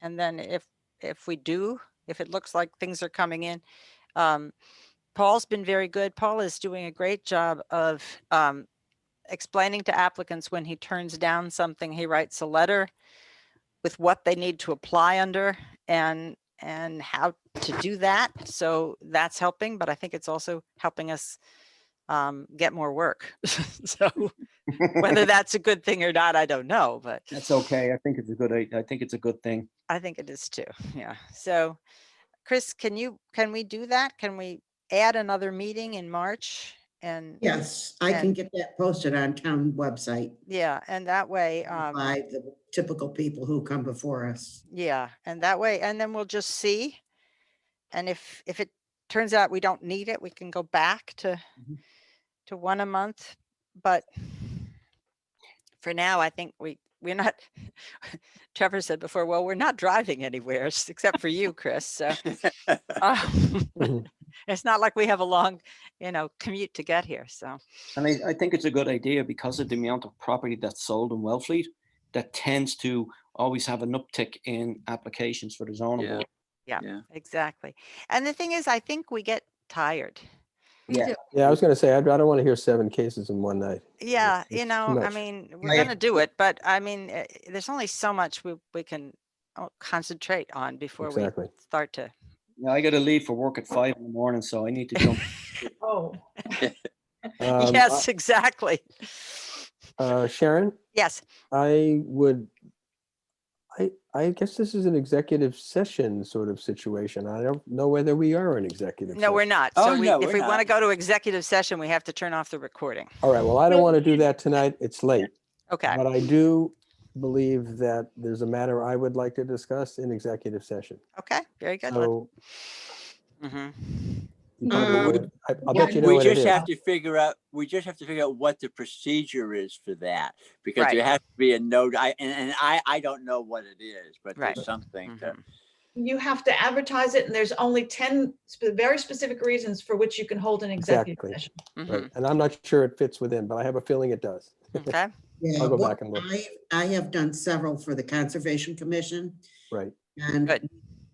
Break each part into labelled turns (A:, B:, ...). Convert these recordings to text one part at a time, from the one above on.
A: And then if, if we do, if it looks like things are coming in, um, Paul's been very good. Paul is doing a great job of, um, explaining to applicants when he turns down something, he writes a letter with what they need to apply under and, and how to do that. So that's helping, but I think it's also helping us um, get more work. So whether that's a good thing or not, I don't know, but
B: That's okay. I think it's a good, I I think it's a good thing.
A: I think it is too. Yeah. So Chris, can you, can we do that? Can we add another meeting in March? And,
C: Yes, I can get that posted on town website
A: yeah, and that way, um,
C: by the typical people who come before us.
A: yeah, and that way, and then we'll just see. And if, if it turns out we don't need it, we can go back to,
B: Mhm.
A: to one a month. But for now, I think we, we're not, Trevor said before, well, we're not driving anywhere s- except for you, Chris, so. um, It's not like we have a long, you know, commute to get here, so,
B: And I, I think it's a good idea because of the amount of property that's sold in Wellfleet that tends to always have an uptick in applications for the zoning
D: Yeah.
B: board.
A: exactly. And the thing is, I think we get tired.
B: Yeah.
E: Yeah, I was gonna say, I'd, I don't want to hear seven cases in one night.
A: Yeah,
E: it's
A: you
E: too
A: know, I
E: much.
A: mean, we're
B: Yeah.
A: gonna do it, but I mean, eh, there's only so much we, we can uh, concentrate on before we
E: Exactly.
A: start to.
B: Yeah, I gotta leave for work at five in the morning, so I need to jump.
A: Oh.
E: Um,
A: Yes, exactly.
E: uh, Sharon,
A: Yes,
E: I would, I, I guess this is an executive session sort of situation. I don't know whether we are an executive.
A: no, we're
E: session.
A: not.
D: Oh,
A: So we,
D: no,
A: if
D: we're
A: we want to
D: not.
A: go to executive session, we have to turn off the recording.
E: All right, well, I don't want to do that tonight. It's late.
A: Okay,
E: But I do believe that there's a matter I would like to discuss in executive session.
A: okay, very good. let's-
E: So
A: mhm.
E: you probably
C: Um,
E: would- I- I'll
C: yeah,
E: bet you know
D: we
E: what it
D: just
E: is.
D: have to figure out. We just have to figure out what the procedure is for that because
A: Right.
D: there has to be a note. I and, and I I don't know what it is, but
A: Right.
D: there's something. to-
E: Mm-hmm.
A: Mhm.
F: You have to advertise it, and there's only 10 sp- very specific reasons for which you can hold an executive
E: Exactly.
F: session.
A: Mhm.
E: Right, And I'm not sure it fits within, but I have a feeling it does.
A: mm-hmm. Okay,
C: Yeah,
E: I'll go
C: well,
E: back and look.
C: I, I have done several for the Conservation Commission
E: Right,
C: and
A: Good.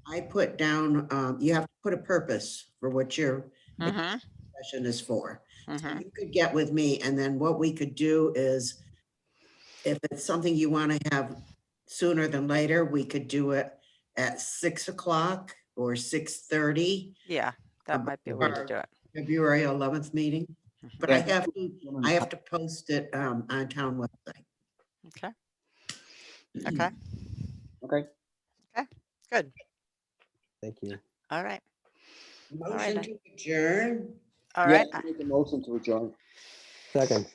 C: I put down, um, you have to put a purpose for what your
A: mhm,
C: session is for.
A: mhm.
C: You could get with me and then what we could do is if it's something you want to have sooner than later, we could do it at six o'clock or six thirty,
A: yeah, that
C: Um,
A: might be a way to
C: or-
A: do it.
C: February eleventh meeting. But I have to, I have to post it um, on town website.
A: Okay, okay,
B: Okay,
A: good,
E: thank you.
A: all right,
C: Motion to adjourn.
A: all right.
B: Yeah, make a motion to adjourn.
E: Second,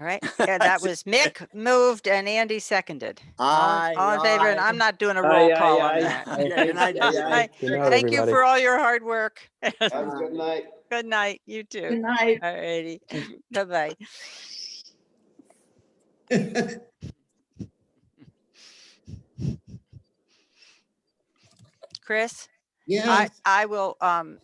A: All right, yeah, that was Mick moved and Andy seconded. All
D: Aye,
A: in- all in favor, and
D: aye.
A: I'm not doing a roll call on that.
D: Yeah, good night, Diane.
A: Aye.
E: good night,
A: Thank you
E: everybody.
A: for all your hard work.
B: Have a good night.
A: Good night, you
F: Good
A: too.
F: night.
C: Mm.
A: All righty, bye-bye. Chris,
C: Yeah,
A: I, I will, um,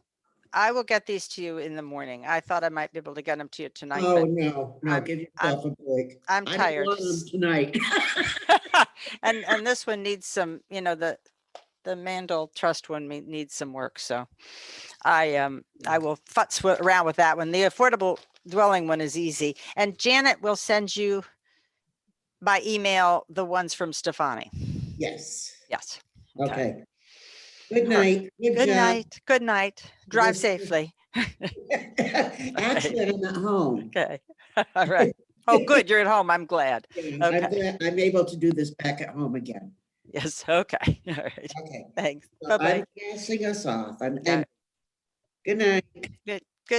A: I will get these to you in the morning. I thought I might be able to get them to you tonight,
C: oh,
A: but
C: no, no,
A: I'm-
C: give
A: I'm-
C: yourself a break.
A: I'm
C: I don't
A: tired.
C: want 'em Tonight.
A: And, and this one needs some, you know, the, the Mandel Trust one me- needs some work, so. I, um, I will futz wi- around with that one. The affordable dwelling one is easy. And Janet will send you by email the ones from Stefani.
C: Yes,
A: Yes.
C: okay. Good
A: All
C: night.
A: Good night, good night. Drive
C: Yes.
A: safely.
C: Actually, I'm at home.
A: Okay, all right. Oh, good, you're at home. I'm glad.
C: Yeah, I'm glad I'm able to do this back at home again.
A: Yes, okay, all right.
C: Okay.
A: Thanks.
C: so
A: Bye-bye.
C: I'm passing us off. I'm,
A: Yeah.
C: good night.
A: Good-